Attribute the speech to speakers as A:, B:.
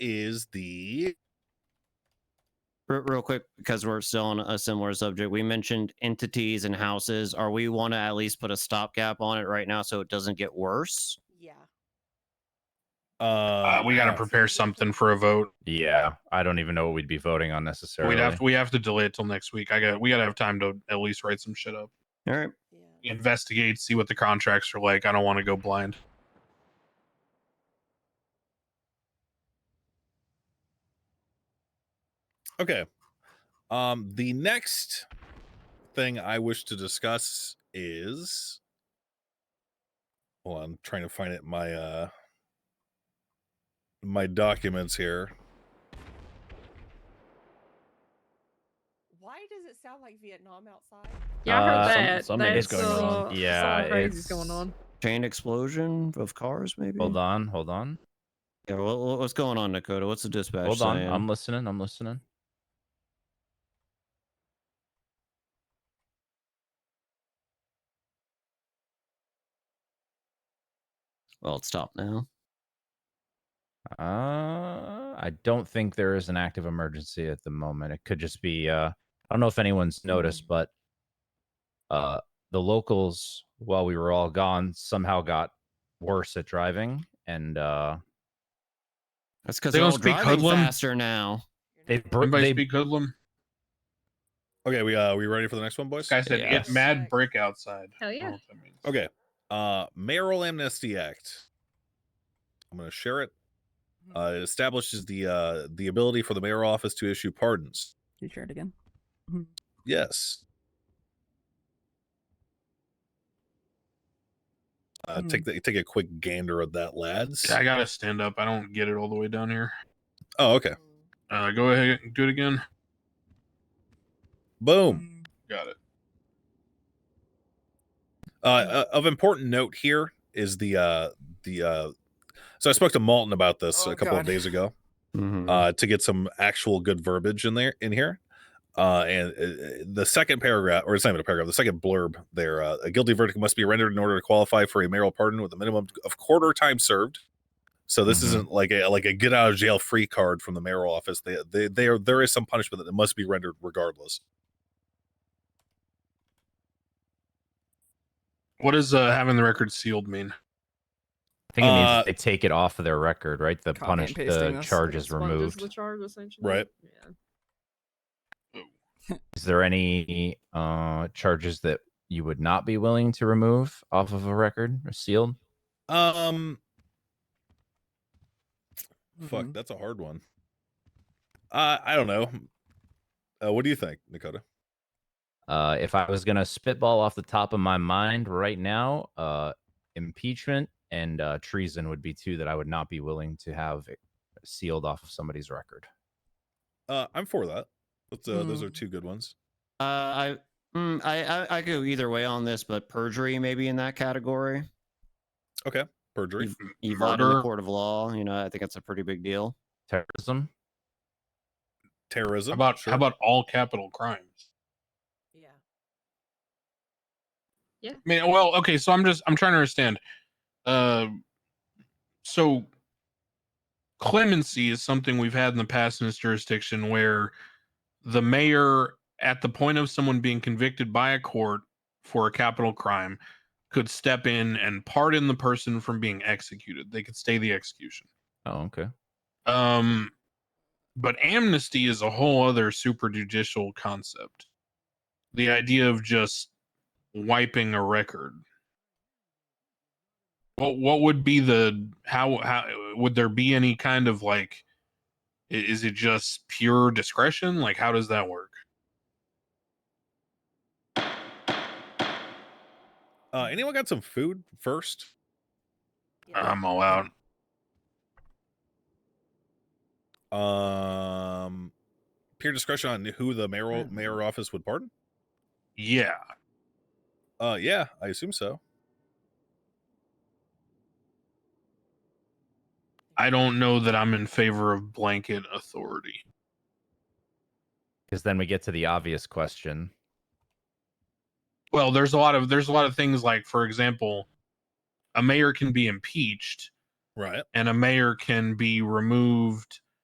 A: is the
B: Re- Real quick, because we're still on a similar subject, we mentioned entities and houses. Are we want to at least put a stopgap on it right now so it doesn't get worse?
C: Yeah.
A: uh,
D: Uh, we got to
A: uh,
D: prepare something for a vote.
E: Yeah, I don't even know what we'd be voting on necessarily.
D: We'd have to, we have to delay it till next week. I got we got to have time to at least write some shit up,
B: All right.
C: Yeah.
D: investigate, see what the contracts are like. I don't want to go blind.
A: Okay. Um, the next thing I wish to discuss is. Well, I'm trying to find it in my uh my documents here.
C: Why does it sound like Vietnam outside?
F: Yeah, I heard
E: Uh, some-
F: that.
A: something's
F: That's,
A: going
E: on.
F: uh,
E: Yeah,
F: something crazy's
E: it's-
F: going on.
B: Chain explosion of cars, maybe?
E: Hold on, hold on,
B: Yeah, wha- wha- what's going on, Dakota? What's the dispatch?
E: hold on.
B: saying?
E: I'm listening. I'm listening.
B: well, it's stopped now.
E: Uh, I don't think there is an active emergency at the moment. It could just be. Uh, I don't know if anyone's noticed, but uh, the locals, while we were all gone, somehow got worse at driving, and uh,
B: That's because
D: They
B: they're
D: don't
B: all
D: speak
B: driving
D: hoodlum?
B: faster now.
C: You're
E: They
C: not
E: br-
C: kidding.
D: Everybody
E: they-
D: speak hoodlum.
A: Okay, we uh we ready for the next one, boys?
D: This guy said,
E: Yes.
D: "Get mad, break outside."
F: Hell
D: I don't know
F: yeah.
D: what that means.
A: Okay. Uh Mayoral Amnesty Act. I'm going to share it.
G: Hmm.
A: Uh, it establishes the uh the ability for the mayor office to issue pardons.
G: you share it again? Mm-hmm.
A: Yes. Uh,
G: Hmm.
A: take the, take a quick gander at that, lads.
D: Yeah, I gotta stand up. I don't get it all the way down here.
A: Oh, okay.
C: Mm,
D: Uh, go ahead, and do it again.
A: Boom.
D: Got it.
A: Uh,
G: Hmm.
A: uh, of important note here is the uh the uh. So I spoke to Malton about this
G: Oh,
A: a couple of
G: God.
A: days ago
B: Mhm.
D: Mm-hmm.
A: uh, to get some actual good verbiage in there in here. Uh, and uh, the second paragraph, or it's not even a paragraph, the second blurb there, uh, a guilty verdict must be rendered in order to qualify for a mayoral pardon with a minimum of quarter time served. So this
D: Mm-hmm.
E: Mhm.
A: isn't like a like a get out of jail free card from the mayoral office. They they, they are, there is some punishment that must be rendered regardless.
D: What does uh, having the record sealed mean?
E: I think it means
A: Uh,
E: that they take it off of their record, right? The
G: Copy
E: punish,
G: and pasting
E: the
G: this.
E: charge is
F: Sponges
E: removed.
F: The charge, essentially.
A: Right.
F: Yeah.
E: Is there any uh charges that you would not be willing to remove off of a record or sealed?
A: Um, fuck,
D: Mm-hmm.
A: that's a hard one. Uh, I don't know. Uh, what do you think, Dakota?
E: Uh, if I was gonna spitball off the top of my mind right now, uh, impeachment and uh, treason would be two that I would not be willing to have it sealed off of somebody's record.
A: Uh, I'm for that. That's, uh, Those are
D: Mm-hmm.
G: Hmm.
A: two good ones.
B: Uh, I, mm, I, I, I go either way on this, but perjury maybe in that category.
A: Perjury.
B: You lied in the
D: Murder.
B: court of law. You know, I think that's a pretty big deal.
E: Terrorism.
A: terrorism.
D: How about
A: sure.
D: how about all capital crimes?
C: Yeah.
D: I mean, well, okay, so I'm just I'm trying to understand. Uh, so clemency is something we've had in the past in this jurisdiction where the mayor, at the point of someone being convicted by a court for a capital crime, could step in and pardon the person from being executed. They could stay the execution.
E: Oh, okay.
D: Um, but amnesty is a whole other super judicial concept. The idea of just wiping a record. What what would be the how how would there be any kind of like i- is it just pure discretion? Like how does that work?
A: Uh, anyone got some food first?
C: yeah.
D: I'm all out.
A: Um, peer discretion on who the mayoral
G: Mm.
A: mayor office would pardon.
D: Yeah.
A: Uh, yeah, I assume so.
D: I don't know that I'm in favor of blanket authority.
E: Because then we get to the obvious question.
D: Well, there's a lot of there's a lot of things like for example, a mayor can be impeached
A: Right.
D: and a mayor can be removed